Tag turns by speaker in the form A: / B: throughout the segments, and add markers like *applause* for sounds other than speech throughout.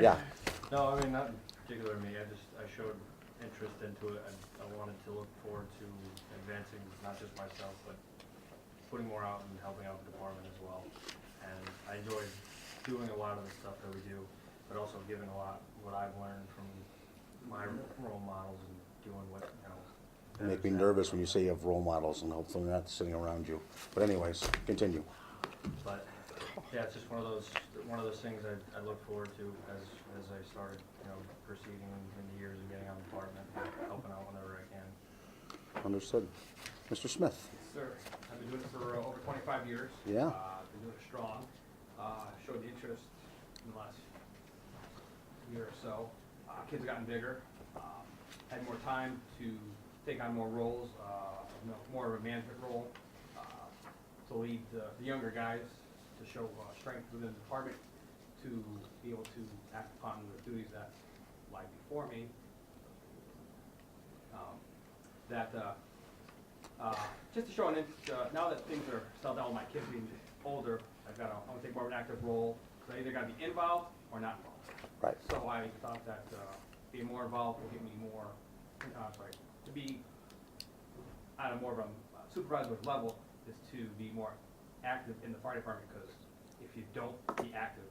A: Yeah.
B: No, I mean, not in particular me, I just, I showed interest into it, I, I wanted to look forward to advancing, not just myself, but putting more out and helping out the department as well. And I enjoy doing a lot of the stuff that we do, but also giving a lot, what I've learned from my role models and doing what, you know.
A: Make me nervous when you say you have role models and hopefully they're not sitting around you. But anyways, continue.
B: But, yeah, it's just one of those, one of those things I, I look forward to as, as I started, you know, proceeding in the years and getting on the department, helping out whenever I can.
A: Understood. Mr. Smith?
C: Sir, I've been doing it for uh, over 25 years.
A: Yeah.
C: Uh, Been doing it strong. Uh, Showed the interest in the last year or so. Uh, Kids have gotten bigger, um, had more time to take on more roles, uh, you know, more of a management role, uh, to lead the the younger guys, to show uh, strength within the department, to be able to act upon the duties that lie before me. Um, That uh, uh, just to show an, int- uh, now that things are settled down with my kids being older, I've got to, I want to take more of an active role, because I either got to be involved or not involved.
A: Right.
C: So I thought that uh, being more involved will give me more, uh, sorry, to be on a more of a supervisory level is to be more active in the fire department, because if you don't be active,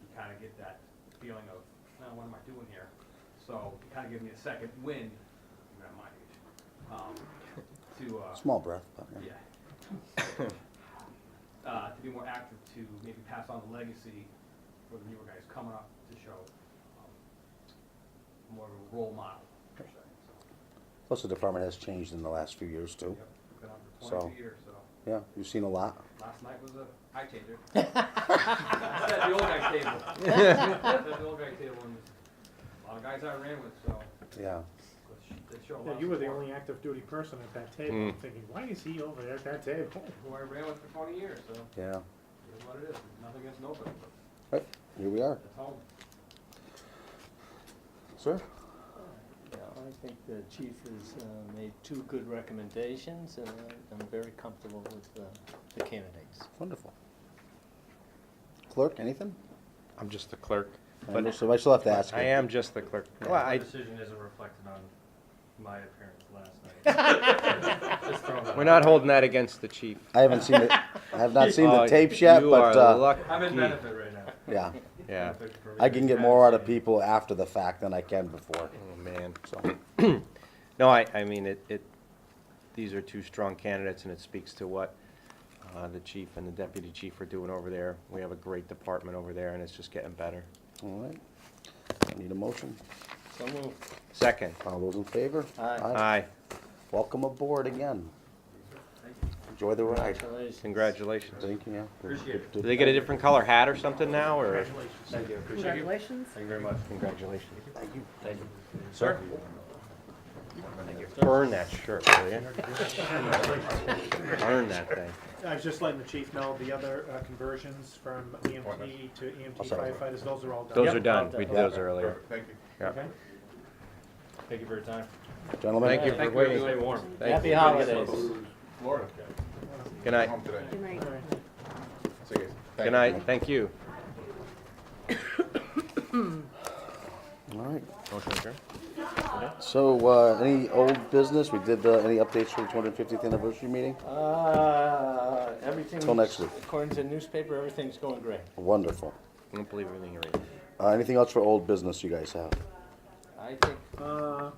C: you kind of get that feeling of, "Oh, what am I doing here? So it kind of gives me a second wind, I'm at my age, um, to, uh,
A: Small breath, but yeah.
C: yeah. *coughs* Uh, to be more active, to maybe pass on the legacy for the newer guys coming up to show, um, more of a role model, per se, so.
A: Plus the department has changed in the last few years too.
C: yep, Been on for
A: So-
C: twenty-two years, so,
A: Yeah, you've seen a lot.
C: last night was a eye changer. That's at the old guy table. That's at the old guy table, and a lot of guys I ran with, so,
A: Yeah.
C: they show a lot
D: Yeah,
C: of
D: you were the
C: support.
D: only active duty person at that table.
E: Hmm.
D: I'm thinking, why is he over there at that table?
C: Who I ran with for twenty years, so,
A: Yeah.
C: it is what it is, nothing against nobody, but
A: Right, here we are.
C: it's home.
A: Sir?
F: Yeah, I think the chief has uh, made two good recommendations, and I- I'm very comfortable with uh, the candidates.
A: Wonderful. Clerk, anything?
E: I'm just the clerk.
A: I
E: But-
A: know- So I still have to ask you.
E: I am just the clerk. Well,
B: My
E: I,
B: decision isn't reflected on my appearance last night. Just throwing that
E: we're
B: out
E: not holding that against the chief.
A: I haven't seen it. I have
E: *laughs*
A: not seen the
E: Oh,
A: tapes yet,
E: you
A: but,
E: are
A: uh,
E: lucky.
B: there. I'm in benefit right now.
A: yeah.
E: Yeah.
B: Benefit for me.
A: I can get more out of people after the fact than I can before,
E: Oh man.
A: so.
E: *clears throat* No, I, I mean it, it. These are two strong candidates, and it speaks to what uh, the chief and the deputy chief are doing over there. We have a great department over there, and it's just getting better.
A: All right. I Need a motion?
F: So moved.
E: Second.
A: All those in favor?
F: Aye.
E: Aye.
A: Welcome aboard again. Enjoy the ride.
F: Congratulations.
E: Congratulations.
A: Thank you, yeah.
B: Appreciate it.
E: Do they get a different color hat or something now, or?
B: Thank you, appreciate it.
G: Congratulations.
E: Thank you very much. Congratulations.
A: Thank you.
E: Sir? Burn that shirt, will you? Burn that thing.
D: I was just letting the chief know the other uh, conversions from EMT to EMT firefighters, those are all done.
E: Oh, Those are
D: Yep.
E: done. We did those earlier. Thank you.
D: Okay.
B: Thank you for your time.
A: Gentlemen?
E: Thank you for
B: Stay
E: waiting.
B: warm.
E: Thank
F: Happy
E: you.
F: holidays.
E: Good night.
G: Good night.
D: All right.
E: Good night. Thank you.
A: All right.
E: Motion adjourned.
A: So, uh, any old business? We did, uh, any updates for the 250th anniversary meeting?
F: Uh, everything.
A: Till next week.
F: According to the newspaper, everything's going great.
A: Wonderful.
E: I don't believe everything you read.
A: Uh, anything else for old business you guys have?
F: I think
D: Uh, Well,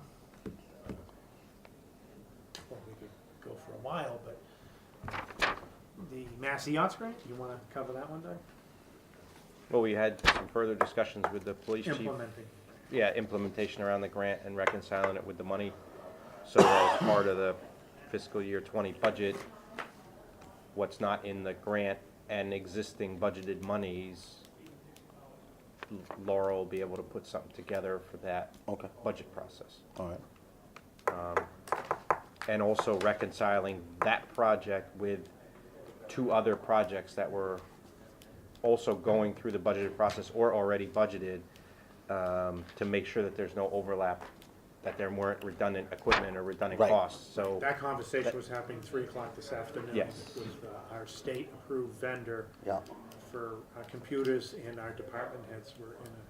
D: we could go for a while, but the Massey Yachts grant, you want to cover that one, Doug?
E: Well, we had some further discussions with the police chief.
D: Implementing.
E: Yeah, implementation around the grant and reconciling it with the money. So as part of the fiscal year twenty budget, what's not in the grant and existing budgeted monies, Laurel will be able to put something together for that
A: Okay,
E: budget process.
A: all right.
E: and also reconciling that project with two other projects that were also going through the budgeted process or already budgeted, um, to make sure that there's no overlap, that there weren't redundant equipment or redundant
A: Right.
E: costs, so,
D: That conversation was happening three o'clock this afternoon.
E: Yes.
D: With uh, our state-approved vendor
A: Yeah.
D: for uh, computers, and our department heads were in a